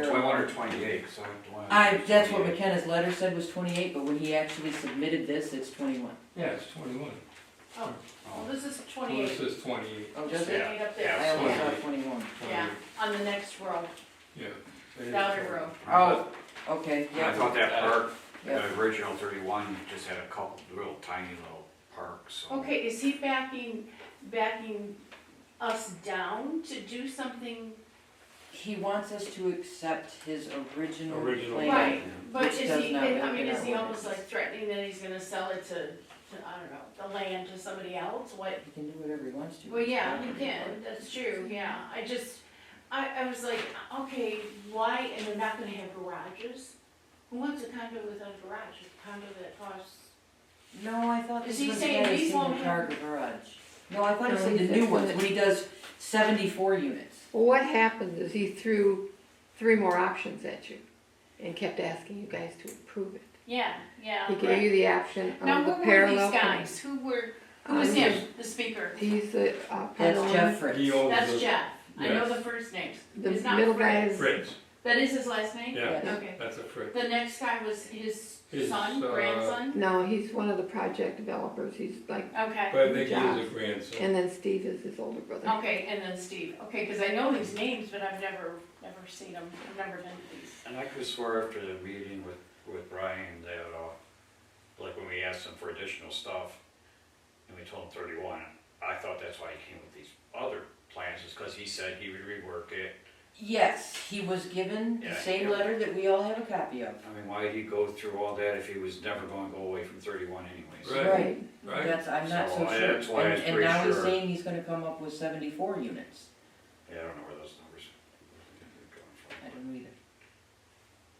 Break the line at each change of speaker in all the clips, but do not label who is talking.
wanted twenty-eight, so I wanted.
I, that's what McKenna's letter said was twenty-eight, but when he actually submitted this, it's twenty-one.
Yeah, it's twenty-one.
Oh, well,
Oh,
this is
Well, it
twenty-eight,
says twenty-eight.
Oh, does it?
twenty-eight up
Yeah,
there,
I only saw
28.
twenty-one.
yeah, on the next row,
Yeah,
it is
outer
20.
row.
Oh, okay,
I
yeah,
thought that park,
yeah.
the original thirty-one, just had a couple real tiny little parks, so.
Okay, is he backing, backing us down to do something?
He wants us to accept his original
Original.
plan.
Right, but
Which
is
does
he,
not
I
make
mean,
it
is he
our ordinance.
almost like threatening that he's gonna sell it to, to, I don't know, the land to somebody else, what?
He can do whatever he wants to.
Well, yeah, he can, that's true, yeah, I just, I, I was like, okay, why, and they're not gonna have garages? Who wants a condo without a garage, a condo that costs
No, I thought this
Is he
was
saying
at a
these
single
won't
car
have-
garage. No, I thought he
No,
said the
he said
new ones,
twenty.
when he does seventy-four units.
Well, what happened is he threw three more options at you and kept asking you guys to approve it.
Yeah, yeah.
He gave you the option
Now,
of Um, the
who were these
parallel.
guys? Who were, who
Um,
was him, the speaker?
He's the, uh,
That's Jeff
Pedaluma,
Fritz.
he owns
That's
the-
Jeff. I know
Yes.
the first names.
the
It's not
middle guy
Fred.
is.
Fritz,
That is his last name?
yeah,
Yeah.
Okay.
that's a Fritz.
The next guy was his
His,
son,
uh,
grandson?
No, he's one of the project developers, he's like,
Okay,
But I think he
Josh.
is a grandson.
and then Steve is his older brother.
okay, and then Steve. Okay, because I know these names, but I've never, never seen them. I've never been to these.
And I could swear after the meeting with, with Brian that, uh, like when we asked him for additional stuff, and we told him thirty-one, I thought that's why he came with these other plans, is cause he said he would rework it.
Yes, he was given the
Yeah,
same
yeah.
letter that we all have a copy of.
I mean, why'd he go through all that if he was never gonna go away from thirty-one anyways?
Right.
Right,
Right.
that's, I'm not so
So, I-
sure.
that's why I was
And-
pretty
And now he's
sure.
saying he's gonna come up with seventy-four units.
Yeah, I don't know where those numbers are coming from.
I don't know either.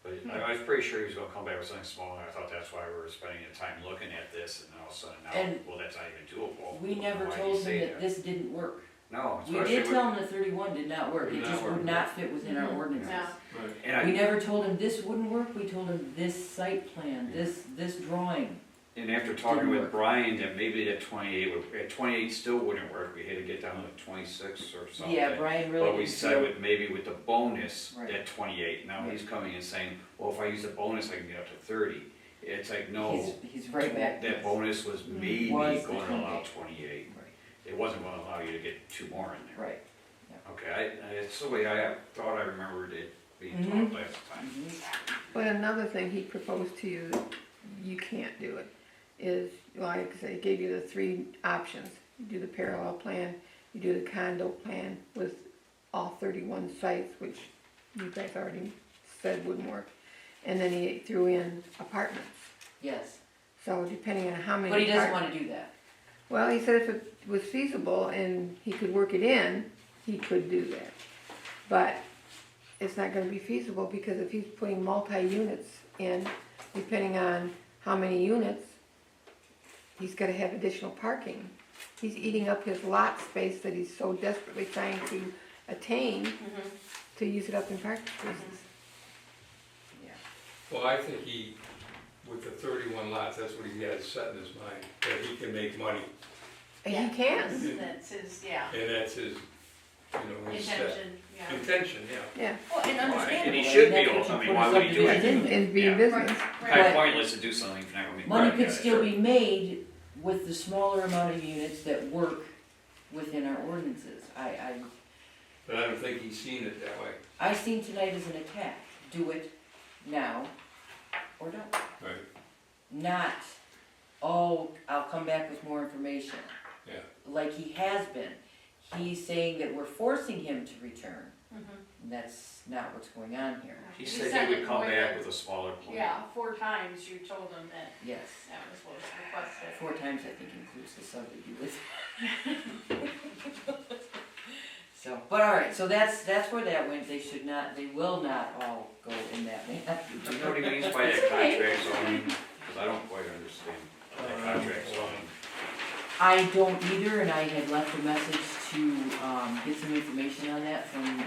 But I I was pretty sure he was gonna come back with something smaller, I thought that's why we were spending the time looking at this, and then all of a sudden now,
And
well, that's not even doable.
We never
Why'd he
told
say
him that this didn't work.
No,
We did
especially
tell
with,
him the thirty-one did not work,
Did
it
not
just
work.
would not fit within our
Mhm.
ordinances.
Yeah.
Right.
and I,
We never told him this wouldn't work, we told him this site plan, this, this drawing.
and after talking
Didn't
with
work.
Brian, that maybe that twenty-eight would, at twenty-eight still wouldn't work, we had to get down to twenty-six or something.
Yeah, Brian really.
But we
didn't
said
feel-
with, maybe with the bonus,
Right.
at twenty-eight, now he's coming and saying, well, if I use the bonus, I can get up to thirty. It's like,
He's,
no,
he's right back. to
that
us.
bonus was maybe
Was
going
the
to allow
28.
twenty-eight,
Right,
it wasn't gonna allow you to get two more in there.
Right.
Okay, I, I- it's the way I thought I remembered it being
Mhm.
taught last time.
Mhm.
But another thing he proposed to you, that you can't do it, is, like I say, he gave you the three options. You do the parallel plan, you do the condo plan with all thirty-one sites, which you guys already said wouldn't work. And then he threw in apartments,
Yes,
so depending on how many.
but he doesn't
apart-
wanna do that.
Well, he said if it was feasible and he could work it in, he could do that. But it's not gonna be feasible because if he's putting multi-units in, depending on how many units, he's gonna have additional parking. He's eating up his lot space that he's so desperately trying to attain
Mhm.
to use it up in parking spaces.
Well, I think he, with the thirty-one lots, that's what he has set in his mind, that he can make money.
And he can,
That's- That's his, yeah,
And that's his, you know, his set.
intention, yeah.
Intention, yeah.
yeah,
Well, and
And
understandable.
he
Well,
should
that's
be,
what
all- I
you
mean,
put
why
us
would
up
he
to
do
do,
it?
didn't
and, and be
Yeah.
in business.
Right,
Kind
right.
of pointless to do something if you're not gonna make money.
Money could
out of it.
still be made with the smaller amount of units that work within our ordinances. I, I,
But I don't think he's seen it that way.
I seen tonight as an attack, do it now or don't.
Right.
Not, oh, I'll come back with more information.
Yeah.
Like he has been. He's saying that we're forcing him to return.
Mhm.
And that's not what's going on here,
He
Mm-hmm. He
said
said
he would come
it
back
was-
with a smaller plan.
Yeah, four times you told him that
yes.
that was what was requested.
Four times I think includes the sub that you live. So, but all right, so that's, that's where that went, they should not, they will not all go in that manner.
Do you know what he means by that contract zoning? Because I don't quite understand that contract zoning.
I don't either, and I had left a message to, um, get some information on that from, um,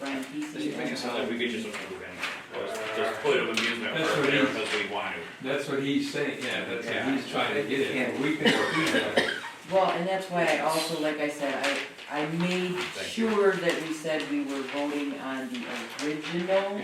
Brian Peace.
Does he Uh, make it sound like we could just approve anything? Just put an amusement park there because we want to.
That's what he's saying, yeah, that's
Yeah.
what he's trying to get at.
Yeah.
We can do that.
Well, and that's why I also, like I said, I, I made
Thank you.
sure that we said we were voting on the original